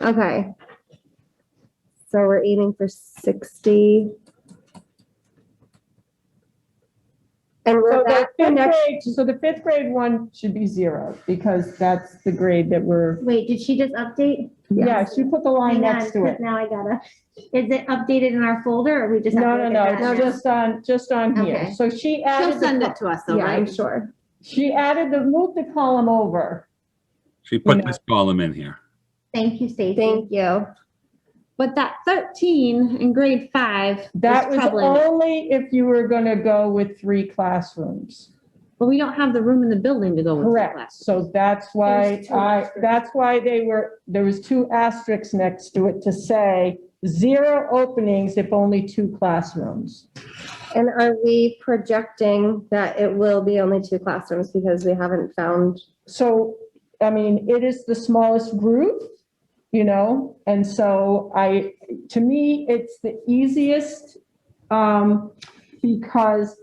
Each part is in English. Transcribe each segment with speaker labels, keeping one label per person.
Speaker 1: Okay. So we're aiming for sixty. And
Speaker 2: So
Speaker 1: we're
Speaker 2: the
Speaker 1: back for
Speaker 2: fifth
Speaker 1: next,
Speaker 2: grade, so the fifth grade one should be zero because that's the grade that we're,
Speaker 3: Wait, did she just update?
Speaker 2: yeah, she put the line
Speaker 3: Hang on,
Speaker 2: next to it.
Speaker 3: 'cause Now I gotta, is it updated in our folder or we just? have
Speaker 2: No,
Speaker 3: to
Speaker 2: no,
Speaker 3: look at
Speaker 2: no,
Speaker 3: that?
Speaker 2: just on, just on here.
Speaker 3: Okay.
Speaker 2: So she
Speaker 4: She'll
Speaker 2: added,
Speaker 4: send
Speaker 2: the
Speaker 4: it to us though,
Speaker 1: yeah,
Speaker 4: right?
Speaker 1: I'm sure.
Speaker 2: co- she added the, moved the column over.
Speaker 5: She put
Speaker 2: know.
Speaker 5: this column in here.
Speaker 3: Thank you, Stacy.
Speaker 1: Thank you.
Speaker 4: But that thirteen in grade five
Speaker 2: That
Speaker 4: is
Speaker 2: was
Speaker 4: troubling.
Speaker 2: only if you were gonna go with three classrooms.
Speaker 4: But we don't have the room in the building to go with the
Speaker 2: Correct.
Speaker 4: class.
Speaker 2: So that's why
Speaker 3: There's two
Speaker 2: I,
Speaker 3: asterisks.
Speaker 2: that's why they were, there was two asterisks next to it to say zero openings if only two classrooms.
Speaker 1: And are we projecting that it will be only two classrooms because we haven't found,
Speaker 2: So, I mean, it is the smallest group, you know, and so I, to me, it's the easiest, um, because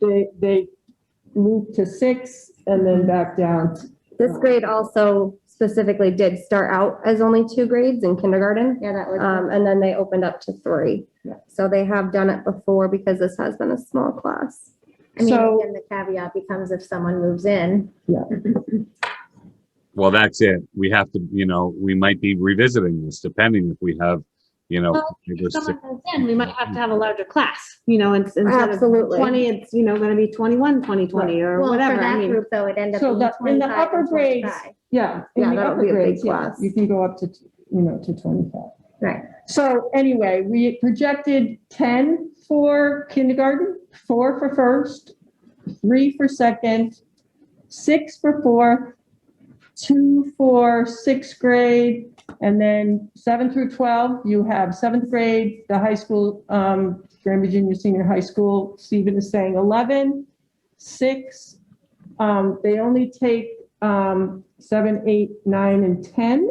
Speaker 2: they, they move to six and then back down.
Speaker 1: this grade also specifically did start out as only two grades in kindergarten.
Speaker 3: Yeah, that was,
Speaker 1: Um, and then they opened up to three.
Speaker 2: Yeah.
Speaker 1: So they have done it before because this has been a small class.
Speaker 3: I mean,
Speaker 2: so-
Speaker 3: again, the caveat becomes if someone moves in.
Speaker 5: Well, that's it. We have to, you know, we might be revisiting this depending if we have, you know.
Speaker 4: Well,
Speaker 5: five or
Speaker 4: If someone
Speaker 5: six-
Speaker 4: comes in, we might have to have a larger class, you know, ins- instead of
Speaker 1: Absolutely.
Speaker 4: twenty, it's, you know, gonna be twenty-one, twenty-twenty or
Speaker 3: Well, for
Speaker 4: whatever. I
Speaker 3: that
Speaker 4: mean,
Speaker 3: group though, it ended up
Speaker 2: So
Speaker 3: being
Speaker 2: the- in the
Speaker 3: 25
Speaker 2: upper
Speaker 3: and
Speaker 2: grades-
Speaker 3: 25.
Speaker 2: Yeah.
Speaker 1: Yeah,
Speaker 2: in the
Speaker 1: that would
Speaker 2: upper
Speaker 1: be a big
Speaker 2: grades, yeah,
Speaker 1: class.
Speaker 2: You can go up to, you know, to 25.
Speaker 3: Right.
Speaker 2: So anyway, we projected 10 for kindergarten, four for first, three for second, six for fourth, two for sixth grade, and then seven through 12, you have seventh grade, the high school, um, Grand Virginia Senior High School, Stephen is saying 11, six, um, they only take, um, seven, eight, nine, and 10.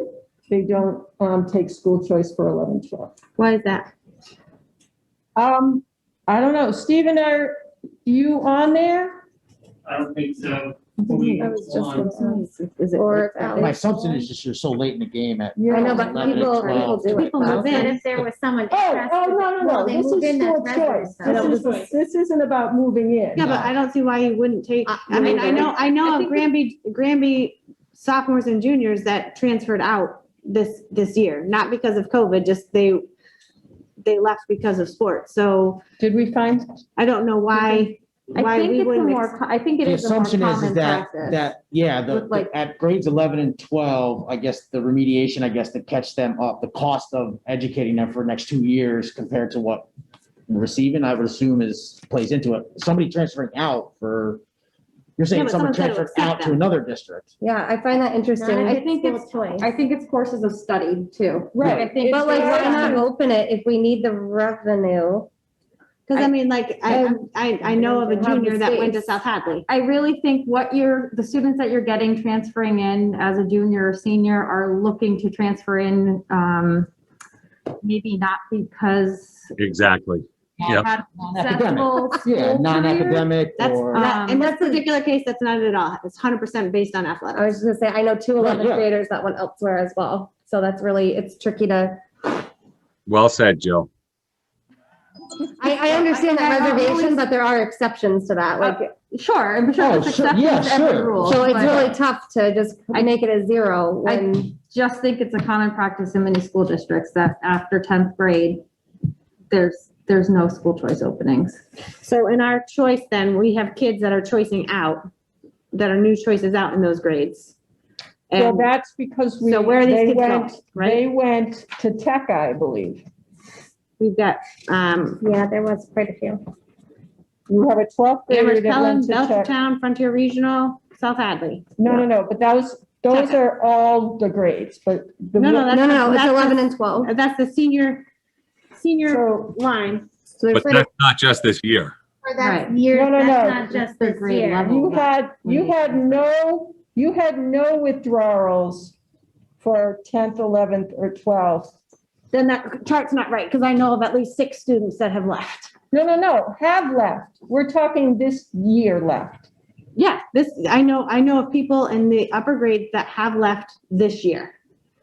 Speaker 2: They don't, um, take school choice for 11, 12.
Speaker 4: why is that?
Speaker 2: Um, I don't know, Stephen, are you on there?
Speaker 6: I don't think so.
Speaker 1: I was just gonna
Speaker 4: Is it-
Speaker 1: Or
Speaker 7: My assumption is just you're so late in the game at.
Speaker 1: I know, but
Speaker 7: 11,
Speaker 1: people, people
Speaker 7: 12.
Speaker 1: do it.
Speaker 4: People move
Speaker 1: though.
Speaker 3: But
Speaker 4: in.
Speaker 3: if there was someone.
Speaker 2: Oh,
Speaker 3: interested,
Speaker 2: oh, no, no,
Speaker 3: well,
Speaker 2: no,
Speaker 3: they
Speaker 2: this
Speaker 3: moved in,
Speaker 2: is school
Speaker 3: that's
Speaker 2: choice.
Speaker 3: residence,
Speaker 2: This is, this isn't about moving in.
Speaker 4: Yeah, but I don't see why you wouldn't take,
Speaker 3: Uh,
Speaker 4: I mean, I know, I
Speaker 1: I
Speaker 4: know of
Speaker 1: think-
Speaker 4: Granby, Granby sophomores and juniors that transferred out this, this year, not because of COVID, just they, they left because of sports. So
Speaker 2: Did we find,
Speaker 4: I don't know why,
Speaker 1: Mm-hmm. I
Speaker 4: why
Speaker 1: think
Speaker 4: we
Speaker 1: it's a
Speaker 4: wouldn't.
Speaker 1: more,
Speaker 4: ex-
Speaker 1: co- I think it
Speaker 7: The
Speaker 1: is a more
Speaker 7: assumption is, is
Speaker 1: common
Speaker 7: that,
Speaker 1: process.
Speaker 7: that, yeah, the,
Speaker 1: With, like-
Speaker 7: the- at grades eleven and twelve, I guess the remediation, I guess, to catch them up, the cost of educating them for the next two years compared to what we're receiving, I would assume is, plays into it. Somebody transferring out for,
Speaker 4: Yeah,
Speaker 7: you're saying
Speaker 4: but
Speaker 7: someone
Speaker 4: someone's gotta
Speaker 7: transferred out
Speaker 4: accept
Speaker 7: to
Speaker 4: them.
Speaker 7: another district.
Speaker 1: Yeah, I find that
Speaker 3: not
Speaker 1: interesting.
Speaker 3: if
Speaker 1: I
Speaker 3: it's
Speaker 1: think it's,
Speaker 3: school choice.
Speaker 8: I think it's courses of study too.
Speaker 2: Right.
Speaker 8: I think.
Speaker 1: but like, why
Speaker 2: Yeah.
Speaker 1: not open it if we need the revenue?
Speaker 4: Cause I mean, like, I, I'm- I, I know of a
Speaker 1: Have the
Speaker 4: junior that went to
Speaker 1: space.
Speaker 4: South Hadley.
Speaker 8: I really think what you're, the students that you're getting transferring in as a junior or senior are looking to transfer in, um, maybe not because
Speaker 5: Exactly. Yep.
Speaker 8: had accessible
Speaker 7: Academic. Yeah,
Speaker 8: school career.
Speaker 7: non-academic
Speaker 4: That's,
Speaker 7: or.
Speaker 2: uh,
Speaker 4: that, in
Speaker 8: Um,
Speaker 4: this particular case, that's not it at all. It's hundred percent based on
Speaker 1: I
Speaker 3: Oh,
Speaker 4: athletics.
Speaker 1: was just gonna say, I know two
Speaker 7: Right,
Speaker 1: 11th
Speaker 7: yeah.
Speaker 1: graders that went elsewhere as well. So that's really, it's tricky to,
Speaker 5: Well said, Jill.
Speaker 1: I, I understand that
Speaker 8: I- I
Speaker 1: reservation,
Speaker 8: always-
Speaker 1: but there are exceptions to that. Like,
Speaker 8: Sure, I'm sure
Speaker 7: Oh,
Speaker 8: there's
Speaker 7: sure, yeah,
Speaker 8: exceptions to every
Speaker 7: sure.
Speaker 8: rule.
Speaker 1: so it's
Speaker 8: but
Speaker 1: really tough to just
Speaker 8: I-
Speaker 1: make it a zero
Speaker 8: I-
Speaker 1: when,
Speaker 8: Just think it's a common practice in many school districts that after tenth grade, there's, there's no school choice openings.
Speaker 4: So in our choice then, we have kids that are choicing out, that are new choices out in those grades.
Speaker 2: well,
Speaker 4: And
Speaker 2: that's because we,
Speaker 4: so where are these
Speaker 2: they
Speaker 4: kids
Speaker 2: went,
Speaker 4: going,
Speaker 2: they
Speaker 4: right?
Speaker 2: went to tech, I believe.
Speaker 4: We've got, um,
Speaker 3: Yeah, there was quite a few.
Speaker 2: You have a 12th grader
Speaker 4: Amherst
Speaker 2: that
Speaker 4: Pelham,
Speaker 2: went to tech.
Speaker 4: Belchertown, Frontier Regional, South Hadley.
Speaker 2: No, no, no, but that was, those are all the grades, but. the
Speaker 4: No, no,
Speaker 1: no, no,
Speaker 4: that's-
Speaker 1: no, it's
Speaker 4: that's
Speaker 1: 11 and 12.
Speaker 4: Uh, That's the senior, senior
Speaker 2: So,
Speaker 4: line.
Speaker 1: So there's
Speaker 5: But
Speaker 1: sort of-
Speaker 5: that's not just this year.
Speaker 3: Or that's
Speaker 8: Right.
Speaker 3: years,
Speaker 2: No, no,
Speaker 3: that's
Speaker 2: no.
Speaker 3: not just
Speaker 8: The
Speaker 3: this
Speaker 8: grade
Speaker 3: year.
Speaker 8: level.
Speaker 2: you had, you had no, you had no withdrawals for 10th, 11th, or 12th.
Speaker 4: Then that chart's not right, because I know of at least six students that have left.
Speaker 2: No, no, no, have left. We're talking this year left.
Speaker 4: Yeah, this, I know, I know of people in the upper grades that have left this year.